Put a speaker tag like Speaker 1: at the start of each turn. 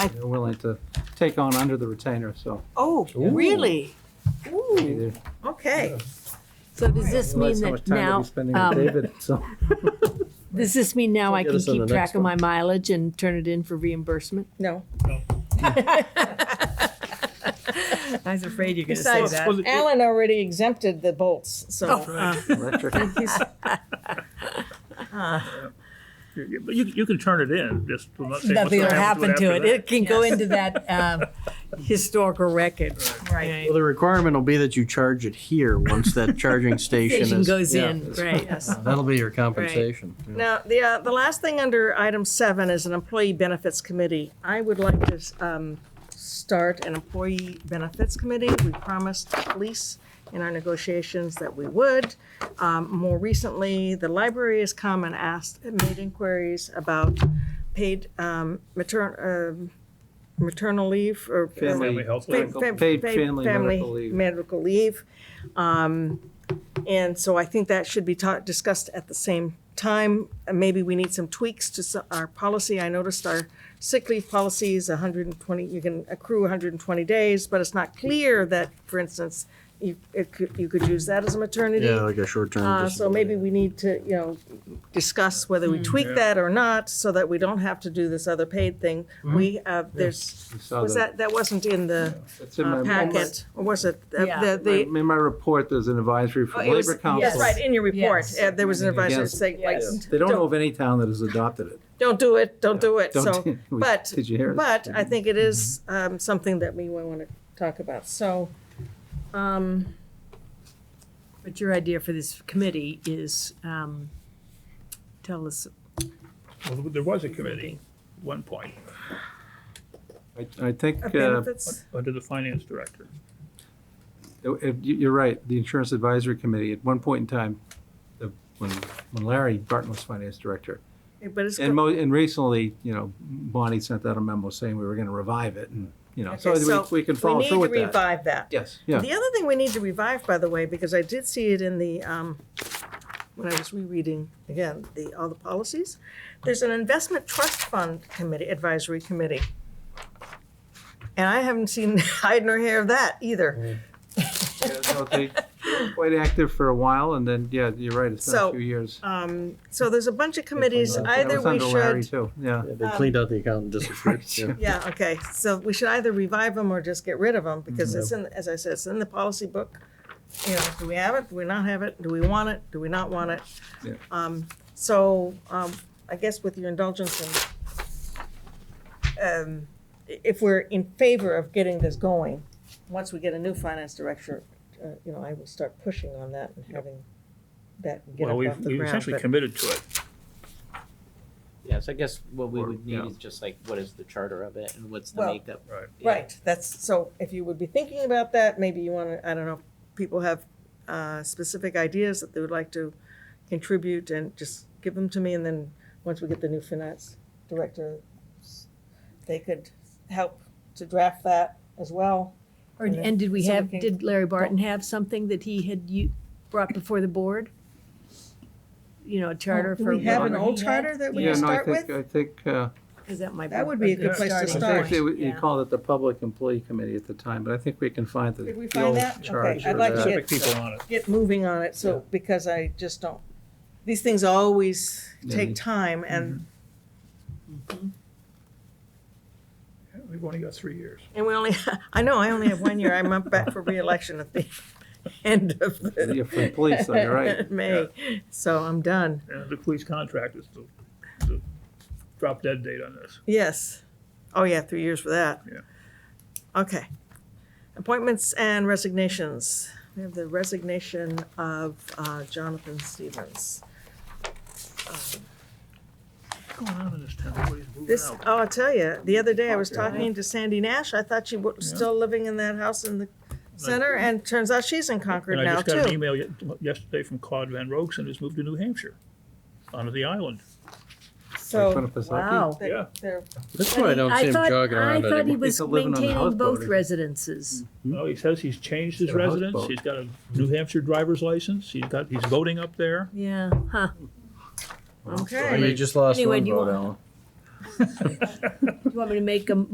Speaker 1: I-
Speaker 2: they're willing to take on under the retainer, so
Speaker 3: Oh,
Speaker 2: Ooh.
Speaker 3: really? Ooh,
Speaker 2: either.
Speaker 3: okay.
Speaker 1: So does this mean
Speaker 2: realize how much
Speaker 1: that
Speaker 2: time we'll
Speaker 1: now,
Speaker 2: be spending
Speaker 1: um,
Speaker 2: with David, so.
Speaker 1: does this mean now I
Speaker 2: Get
Speaker 1: can
Speaker 2: us on
Speaker 1: keep
Speaker 2: the next
Speaker 1: track of my mileage and turn it in for reimbursement?
Speaker 3: No.
Speaker 4: I was afraid you're going to say
Speaker 3: Besides,
Speaker 4: that.
Speaker 3: Alan already exempted the bolts, so.
Speaker 2: Electric.
Speaker 5: You, you you can turn it in, just. I'm not saying what's
Speaker 4: Nothing will
Speaker 5: gonna
Speaker 4: happen to it.
Speaker 5: after
Speaker 4: It can go
Speaker 3: Yes.
Speaker 4: into that um, historical record.
Speaker 3: Right.
Speaker 6: Well, the requirement will be that you charge it here once that charging station
Speaker 4: Station
Speaker 6: is.
Speaker 4: goes
Speaker 6: yeah,
Speaker 4: in,
Speaker 6: is-
Speaker 4: right.
Speaker 6: That'll be your compensation. yeah.
Speaker 3: Now, the, uh, the last thing under item seven is an employee benefits committee. I would like to, um, start an employee benefits committee. We promised police in our negotiations that we would. Um, more recently, the library has come and asked, made inquiries about paid, um, matern, um maternal leave or.
Speaker 2: Family
Speaker 5: Family health.
Speaker 3: Fa-
Speaker 2: Medical-
Speaker 3: fam-
Speaker 2: paid
Speaker 3: fa-
Speaker 2: family medical leave.
Speaker 3: medical leave. Um, and so I think that should be taught, discussed at the same time. And Maybe we need some tweaks to s- our policy. I noticed our sick leave policy is hundred and twenty, you can accrue hundred and twenty days, but it's not clear that, for instance, you, it could, you could use that as a maternity.
Speaker 6: Yeah, like a short-term
Speaker 4: Um,
Speaker 3: Uh, so
Speaker 6: disability.
Speaker 3: maybe we need to, you know, discuss whether
Speaker 2: Hmm.
Speaker 3: we tweak that or not, so that we don't have to do this other paid thing.
Speaker 2: Hmm.
Speaker 3: We, uh, there's,
Speaker 2: You saw
Speaker 3: was that, that wasn't in the
Speaker 2: It's in my-
Speaker 3: uh, packet, or was it? uh,
Speaker 4: Yeah.
Speaker 3: the-
Speaker 2: my-
Speaker 3: the-
Speaker 2: In my report, there's an advisory
Speaker 3: oh,
Speaker 2: from
Speaker 3: it was-
Speaker 2: Labor Council.
Speaker 3: Yes, right, in your report,
Speaker 4: Yes.
Speaker 3: uh, there was an advisory
Speaker 2: Against-
Speaker 3: saying, like,
Speaker 2: Yes. They don't know of any town that has adopted it.
Speaker 3: don't do it, don't do it,
Speaker 2: Don't
Speaker 3: so,
Speaker 2: do- Mm-hmm. we-
Speaker 3: but,
Speaker 2: did you hear it?
Speaker 3: but I think it is um, something that we want to talk about, so. um,
Speaker 4: But your idea for this committee is, um, tell us,
Speaker 5: Well, There was a committee at one point,
Speaker 2: I- I think
Speaker 3: uh,
Speaker 2: uh,
Speaker 3: Benefits,
Speaker 5: under the finance director.
Speaker 2: it- it- Oh, you- you're right, the Insurance Advisory Committee, at one point in time, the- when when Larry Barton was finance director,
Speaker 3: but it's,
Speaker 2: And mo, and recently, you know, Bonnie sent out a memo saying we were gonna revive it and, you know, so
Speaker 3: Okay, so
Speaker 2: we, we can
Speaker 3: we
Speaker 2: follow
Speaker 3: need
Speaker 2: through
Speaker 3: to
Speaker 2: with that.
Speaker 3: revive that.
Speaker 2: Yes, yeah,
Speaker 3: The other thing we need to revive, by the way, because I did see it in the, um, when I was rereading, again, the, all the policies, there's an investment trust fund committee, advisory committee. And I haven't seen hide nor hair of that
Speaker 2: Mm.
Speaker 3: either.
Speaker 2: Yeah, no, they were quite active for a while and then, yeah, you're right, it's been
Speaker 3: So,
Speaker 2: a few years.
Speaker 3: Um, so there's a bunch of committees,
Speaker 6: that.
Speaker 2: That
Speaker 3: either
Speaker 2: was
Speaker 3: we
Speaker 2: under Larry
Speaker 3: should,
Speaker 2: too, yeah.
Speaker 6: Yeah, They
Speaker 4: um,
Speaker 6: cleaned out the account and disappeared.
Speaker 2: Right.
Speaker 6: yeah.
Speaker 3: yeah, okay, so we should either revive them or just get rid of them, because it's in, as I said, it's in the policy book. You know, do we have it, do we not have it, do we want it, do we not want it?
Speaker 2: Yeah.
Speaker 3: Um, so, um, I guess with your indulgence and, um, i- if we're in favor of getting this going, once we get a new finance director, uh, you know, I will start pushing on that and having that get
Speaker 5: Well,
Speaker 3: up
Speaker 5: we've
Speaker 3: off the
Speaker 5: we've
Speaker 3: ground.
Speaker 5: essentially
Speaker 3: but-
Speaker 5: committed to it.
Speaker 7: Yes, I guess what we
Speaker 2: Or-
Speaker 7: would
Speaker 2: yeah.
Speaker 7: need is just like, what is the charter of it and what's the
Speaker 3: Well,
Speaker 7: makeup?
Speaker 5: Right.
Speaker 7: Yeah.
Speaker 3: Right, that's, so if you would be thinking about that, maybe you wanna, I don't know, people have, uh, specific ideas that they would like to contribute and just give them to me and then, once we get the new finance director, they could help to draft that as well.
Speaker 4: or,
Speaker 3: And then-
Speaker 4: and did we
Speaker 3: so we
Speaker 4: have,
Speaker 3: can-
Speaker 4: did Larry Barton have something that he had you brought before the board? You know, a charter
Speaker 3: Do
Speaker 4: for.
Speaker 3: we have an
Speaker 4: whatever
Speaker 3: old
Speaker 4: he had?
Speaker 3: charter that we
Speaker 2: Yeah,
Speaker 3: can
Speaker 2: no, I
Speaker 3: start
Speaker 2: think,
Speaker 3: with?
Speaker 2: I think, uh,
Speaker 4: 'Cause that might be.
Speaker 3: That would be a good place to
Speaker 2: I
Speaker 4: starting
Speaker 3: start.
Speaker 2: think
Speaker 4: point.
Speaker 2: they, would- you
Speaker 4: Yeah.
Speaker 2: called it the Public Employee Committee at the time, but I think we can find the
Speaker 3: Did we
Speaker 2: the
Speaker 3: find
Speaker 2: old
Speaker 3: that? Okay,
Speaker 2: charge
Speaker 3: I'd
Speaker 2: or
Speaker 3: like to
Speaker 2: that.
Speaker 3: get-
Speaker 5: Specific people on it.
Speaker 3: Get moving on it, so, because I just don't, these things always
Speaker 2: Yeah, Mm-hmm. they-
Speaker 3: take time and,
Speaker 5: We've only got three years.
Speaker 3: and we only, I know, I only have one year, I'm up back for reelection at the end of the.
Speaker 2: Yeah, for the police, though, you're right.
Speaker 3: May, so I'm done.
Speaker 5: And the police contract is the, the drop dead date on this.
Speaker 3: Yes. Oh, yeah, three years for that.
Speaker 5: Yeah.
Speaker 3: Okay. Appointments and resignations. We have the resignation of uh, Jonathan Stevens.
Speaker 5: What's going on in this town? Everybody's moving
Speaker 3: This,
Speaker 5: out.
Speaker 3: oh, I'll tell you, the other day I was talking to Sandy Nash. I thought she was
Speaker 5: Yeah.
Speaker 3: still living in that house in the center, and turns out she's in Concord
Speaker 5: And I
Speaker 3: now,
Speaker 5: just got an
Speaker 3: too.
Speaker 5: email ye- yesterday from Claude Van Rogeson, who's moved to New Hampshire, onto the island.
Speaker 2: Like
Speaker 3: So,
Speaker 2: Winnipesaukee.
Speaker 4: Wow.
Speaker 3: they-
Speaker 5: Yeah.
Speaker 3: they're,
Speaker 6: That's why I don't see him
Speaker 4: thought-
Speaker 6: jogging around
Speaker 4: I thought he
Speaker 6: anymore.
Speaker 4: was
Speaker 2: He's living on the
Speaker 4: maintaining
Speaker 2: houseboat,
Speaker 4: both
Speaker 2: isn't he?
Speaker 4: residences.
Speaker 5: No, he says he's changed his
Speaker 2: Got a
Speaker 5: residence,
Speaker 2: houseboat.
Speaker 5: he's got Hmm. a New Hampshire driver's license, he's got, he's voting up there.
Speaker 4: Yeah, huh.
Speaker 3: okay.
Speaker 6: You just lost
Speaker 4: Anyway,
Speaker 6: one
Speaker 4: do you
Speaker 6: vote,
Speaker 4: want-
Speaker 6: Alan.
Speaker 4: You want me to make a